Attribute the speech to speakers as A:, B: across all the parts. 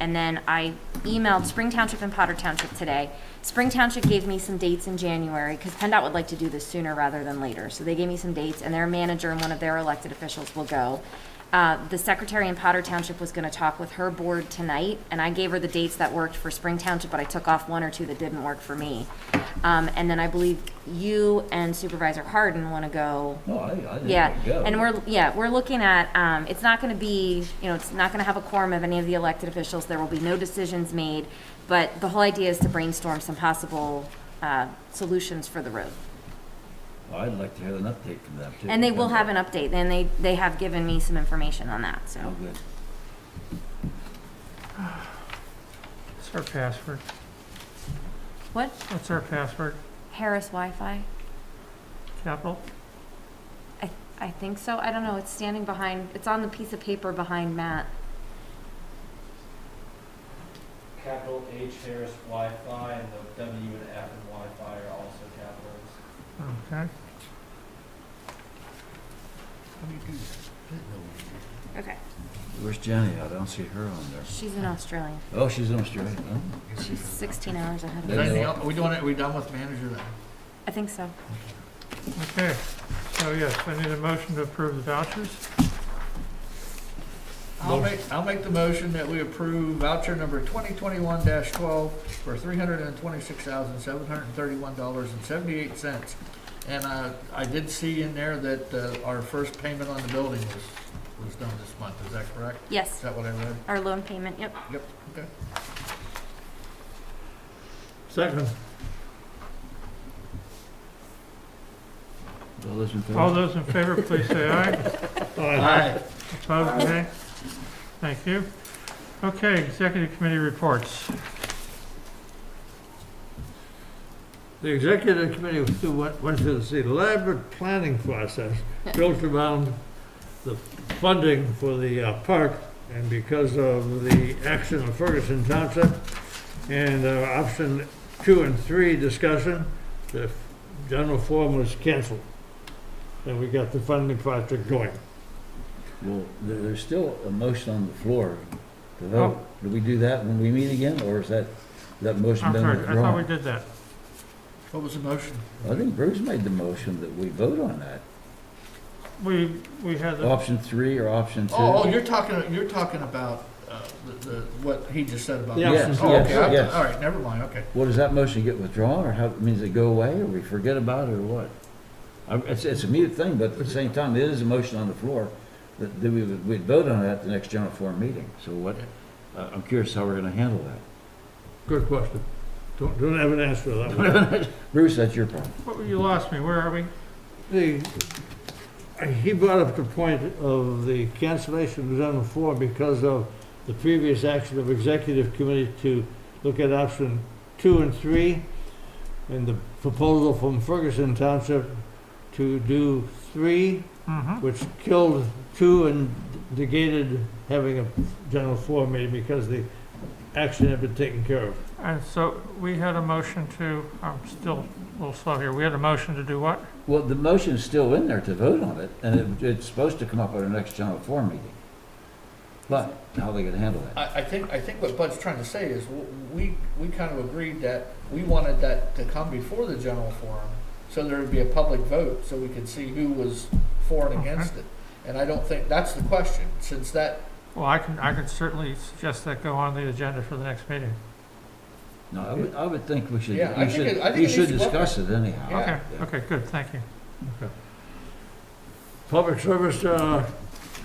A: and then I emailed Spring Township and Potter Township today. Spring Township gave me some dates in January, because PennDOT would like to do this sooner rather than later. So they gave me some dates, and their manager and one of their elected officials will go. Uh, The secretary in Potter Township was going to talk with her board tonight, and I gave her the dates that worked for Spring Township, but I took off one or two that didn't work for me. Um, And then I believe you and Supervisor Harden want to go
B: No, I, I didn't
A: yeah,
B: go.
A: and we're, yeah, we're looking at, um, it's not gonna be, you know, it's not gonna have a quorum of any of the elected officials, there will be no decisions made, but the whole idea is to brainstorm some possible, uh, solutions for the road.
B: I'd like to have an update from them too.
A: And they will have an update, and they, they have given me some information on that,
B: Oh,
A: so.
B: good.
C: What's our password?
A: What,
C: What's our password?
A: Harris Wi-Fi?
C: Capital?
A: I, I think so, I don't know, it's standing behind, it's on the piece of paper behind Matt.
D: Capital H Harris Wi-Fi and the W and F and Wi-Fi are also capitals.
C: Okay.
A: Okay.
B: Where's Jenny? I don't see her on there.
A: She's in Australia,
B: Oh, she's in Australia. Oh,
A: she's sixteen hours ahead of
B: There
E: Is
B: you
E: there
A: us,
E: anything
B: go.
E: else? Are we doing it, are we done with manager then?
A: I think so.
C: Okay. So yes, I need a motion to approve the vouchers.
E: I'll make, I'll make the motion that we approve voucher number twenty twenty-one twelve for three hundred and twenty-six thousand, seven hundred and thirty-one dollars and seventy-eight cents. And I, I did see in there that, uh, our first payment on the building was, was done this month, is that correct? Is
A: Yes,
E: that what I read?
A: our loan payment, yep.
E: Yep, okay.
C: Second.
B: All those in favor?
C: All those in favor, please say aye.
E: Aye.
C: Opposed, nay. Thank you. Okay, executive committee reports.
F: The executive committee was through- went went through this elaborate planning process built around the funding for the uh, park and because of the action of Ferguson Township and uh, option two and three discussion, the general forum was canceled. And we got the funding project going.
B: Well, there, there's still a motion on the floor to
C: Oh.
B: vote. Do we do that when we meet again, or is that, that motion
C: I'm
B: been
C: sorry, I thought we
B: withdrawn?
C: did that.
E: What was the motion?
B: I think Bruce made the motion that we vote on that.
C: We, we had, the-
B: Option three or option two?
E: Oh, oh, you're talking, you're talking about, uh, the, the, what he just said about.
F: The option
B: Yes,
F: two.
E: Oh, okay,
B: yes,
E: I-
B: yes.
E: all right, never mind, okay.
B: Well, does that motion get withdrawn, or how, means it go away, or we forget about it, or what? I- It's, it's a mute thing, but at the same time, it is a motion on the floor, that, that we, would- we'd vote on it at the next general forum meeting, so what, uh, I'm curious how we're gonna handle that.
F: Good question. Don't, don't have an answer to that one.
B: Bruce, that's your problem.
C: what- you lost me, where are we?
F: The, he brought up the point of the cancellation was on the floor because of the previous action of executive committee to look at option two and three, and the proposal from Ferguson Township to do three,
C: Mm-hmm,
F: which killed two and negated having a general floor meeting because the action had been taken care of.
C: and so we had a motion to, I'm still a little slow here, we had a motion to do what?
B: Well, the motion's still in there to vote on it, and it, it's supposed to come up at our next general forum meeting. But, how they gonna handle that?
E: I, I think, I think what Bud's trying to say is, w- we, we kind of agreed that we wanted that to come before the general forum, so there would be a public vote, so we could see who was for and against it. And I don't think, that's the question, since that,
C: Well, I can, I can certainly suggest that go on the agenda for the next meeting.
B: No, I would, I would think we should,
E: Yeah, I
B: you
E: think it-
B: should,
E: I think
B: you
E: it
B: should
E: needs to go up.
B: discuss it anyhow.
E: Yeah.
C: Okay,
B: Yeah.
C: okay, good, thank you.
F: Public Service uh,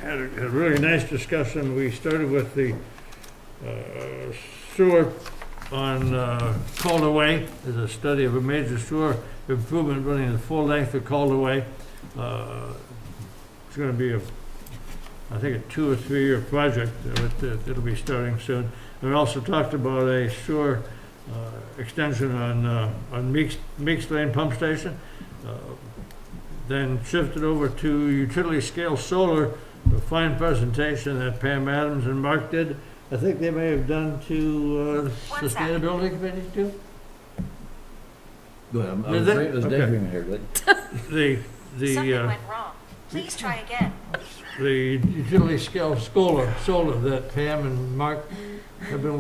F: had a had a really nice discussion. We started with the uh, sewer on uh, Calder Way. There's a study of a major sewer improvement running the full length of Calder Way. Uh, It's going to be, a, I think, a two or three-year project that it'll be starting soon. And we also talked about a sewer uh, extension on uh, on Meeks Meeks Lane Pump Station. Uh, then shifted over to utility scale solar, a fine presentation that Pam Adams and Mark did. I think they may have done to uh,
A: One sec.
F: sustainability committee too.
B: Go ahead, I'm, I'm
F: Is it?
B: agree- I was
F: Okay.
B: daydreaming here, but
F: The, the, uh,
A: wrong. Please try again.
F: the utility scale solar, solar that Pam and Mark I've been